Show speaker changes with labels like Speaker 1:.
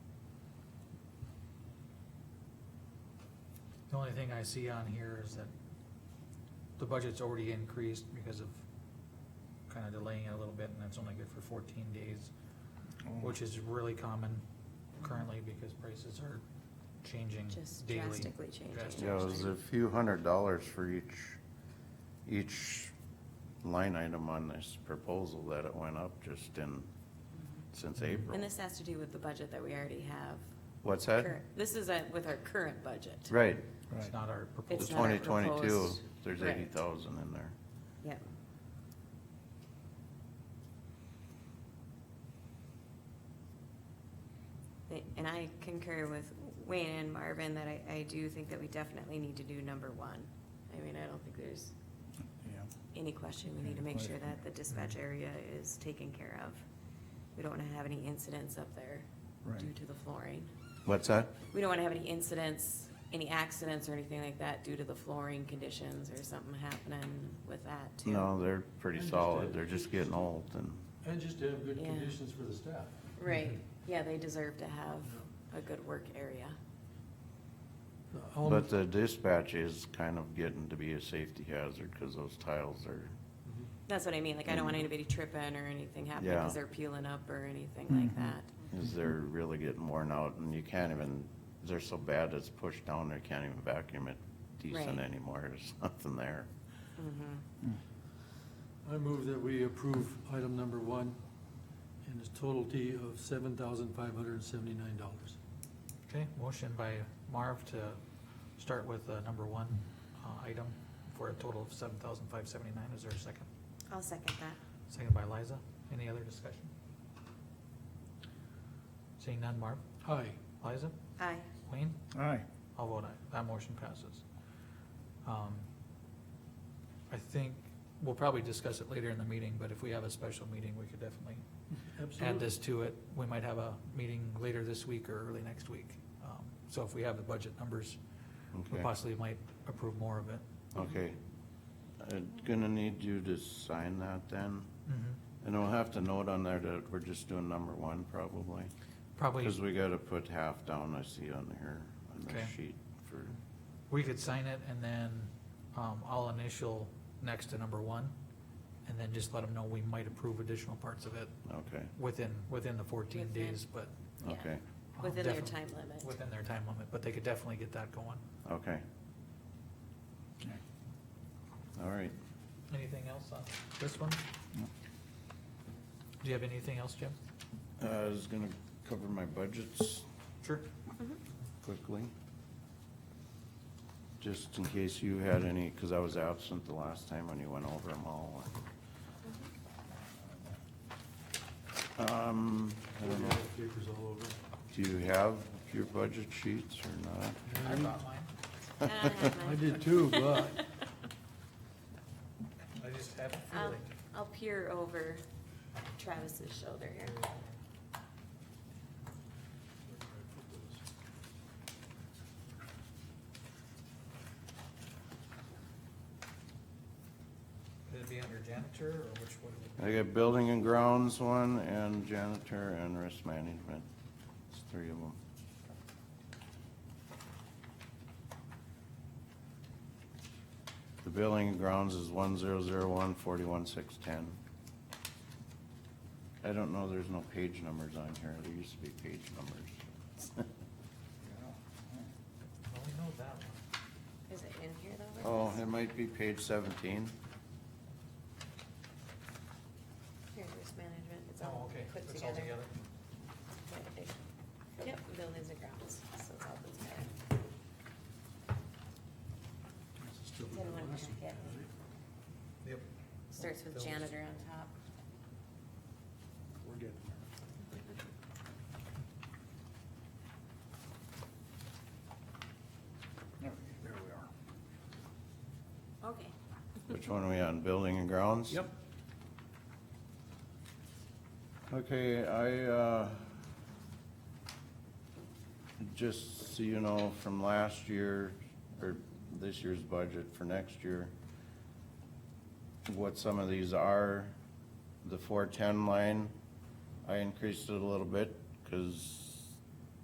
Speaker 1: The only thing I see on here is that the budget's already increased because of kinda delaying it a little bit, and that's only good for fourteen days,
Speaker 2: Oh.
Speaker 1: which is really common currently because prices are changing
Speaker 3: Just
Speaker 1: daily.
Speaker 3: drastically changing.
Speaker 1: Drastically.
Speaker 2: Yeah, it was a few hundred dollars for each, each line item on this proposal that it went up just in, since April.
Speaker 3: And this has to do with the budget that we already have.
Speaker 2: What's that?
Speaker 3: Current- This is a- with our current budget.
Speaker 2: Right,
Speaker 1: It's not our
Speaker 2: the
Speaker 1: proposal.
Speaker 3: It's not
Speaker 2: twenty
Speaker 3: our
Speaker 2: twenty-two,
Speaker 3: proposed-
Speaker 2: there's
Speaker 3: Right.
Speaker 2: eighty thousand in there.
Speaker 3: Yep. They- And I concur with Wayne and Marvin that I, I do think that we definitely need to do number one. I mean, I don't think there's any question. We need to make sure that the dispatch area is taken care of. We don't wanna have any incidents up there due
Speaker 4: Right.
Speaker 3: to the flooring.
Speaker 2: What's that?
Speaker 3: We don't wanna have any incidents, any accidents or anything like that due to the flooring conditions or something happening with that too.
Speaker 2: No, they're pretty
Speaker 5: I
Speaker 2: solid,
Speaker 5: understand.
Speaker 2: they're just getting old and,
Speaker 5: And just to have good
Speaker 3: Yeah.
Speaker 5: conditions for the staff.
Speaker 3: Right, yeah, they deserve to have a good work area.
Speaker 2: but uh, the dispatch is kind of getting to be a safety hazard, cause those tiles are,
Speaker 5: Mm-hmm.
Speaker 3: That's what I mean, like, I don't want anybody tripping or anything
Speaker 2: Mm-hmm.
Speaker 3: happening
Speaker 2: Yeah. Mm-hmm.
Speaker 3: because they're peeling up or anything like
Speaker 4: Mhm.
Speaker 3: that.
Speaker 2: is they're really getting worn out and you can't even, they're so bad it's pushed down, they can't even vacuum it decent
Speaker 3: Right.
Speaker 2: anymore, there's nothing there.
Speaker 3: Mhm.
Speaker 5: I move that we approve item number one in its totality of seven thousand five hundred and seventy-nine dollars.
Speaker 1: Okay, motion by Marv to start with uh number one, uh, item for a total of seven thousand five seventy-nine. Is there a second?
Speaker 3: I'll second that.
Speaker 1: Second by Liza. Any other discussion? Seeing none, Marv?
Speaker 5: Aye.
Speaker 1: Liza?
Speaker 3: Aye.
Speaker 1: Wayne?
Speaker 4: Aye.
Speaker 1: I'll vote aye. That motion passes. Um, I think, we'll probably discuss it later in the meeting, but if we have a special meeting, we could definitely add
Speaker 5: Absolutely.
Speaker 1: this to it. We might have a meeting later this week or early next week. Um, So if we have the budget numbers, we
Speaker 2: Okay.
Speaker 1: possibly might approve more of it.
Speaker 2: Okay. I'm gonna need you to sign that then,
Speaker 1: Mm-hmm.
Speaker 2: and we'll have to note on there that we're just doing number one probably.
Speaker 1: Probably,
Speaker 2: Cause we gotta put half down, I see on here, on the
Speaker 1: Okay.
Speaker 2: sheet for,
Speaker 1: we could sign it and then um, I'll initial next to number one. And then just let them know we might approve additional parts of it
Speaker 2: okay,
Speaker 1: within, within the fourteen
Speaker 3: Within.
Speaker 1: days, but
Speaker 3: Yeah.
Speaker 2: okay,
Speaker 1: Um,
Speaker 3: Within their time
Speaker 1: definitely.
Speaker 3: limit.
Speaker 1: within their time limit, but they could definitely get that going.
Speaker 2: okay, all right.
Speaker 1: Anything else on this one?
Speaker 4: No.
Speaker 1: Do you have anything else, Jim?
Speaker 2: Uh, I was gonna cover my budgets
Speaker 1: Sure.
Speaker 2: quickly. Just in case you had any, cause I was absent the last time when you went over them all. Um, I don't know.
Speaker 5: Papers all over.
Speaker 2: Do you have your budget sheets or not?
Speaker 1: I brought mine.
Speaker 3: And I have
Speaker 5: I
Speaker 3: mine.
Speaker 5: did too, but
Speaker 1: I just have a
Speaker 3: I'll,
Speaker 1: feeling.
Speaker 3: I'll peer over Travis's shoulder here. Um,
Speaker 1: Would it be under janitor or which one?
Speaker 2: I got building and grounds one and janitor and risk management. It's three of them. The building and grounds is one zero zero one forty-one six ten. I don't know, there's no page numbers on here. There used to be page numbers.
Speaker 1: Oh, we know that one.
Speaker 3: Is it in here though?
Speaker 2: Oh, it might be page seventeen.
Speaker 3: Here's risk management, it's
Speaker 1: Oh,
Speaker 3: all
Speaker 1: okay.
Speaker 3: put
Speaker 1: It's all together.
Speaker 3: Yep, buildings and grounds, so it's all put together. Then one packet.
Speaker 1: Yep.
Speaker 3: Starts with
Speaker 1: Buildings.
Speaker 3: janitor on top.
Speaker 5: we're getting there.
Speaker 4: There we are.
Speaker 3: Okay.
Speaker 2: Which one are we on, building and grounds?
Speaker 4: Yep.
Speaker 2: Okay, I, uh, just so you know, from last year, or this year's budget for next year, what some of these are, the four-ten line, I increased it a little bit, cause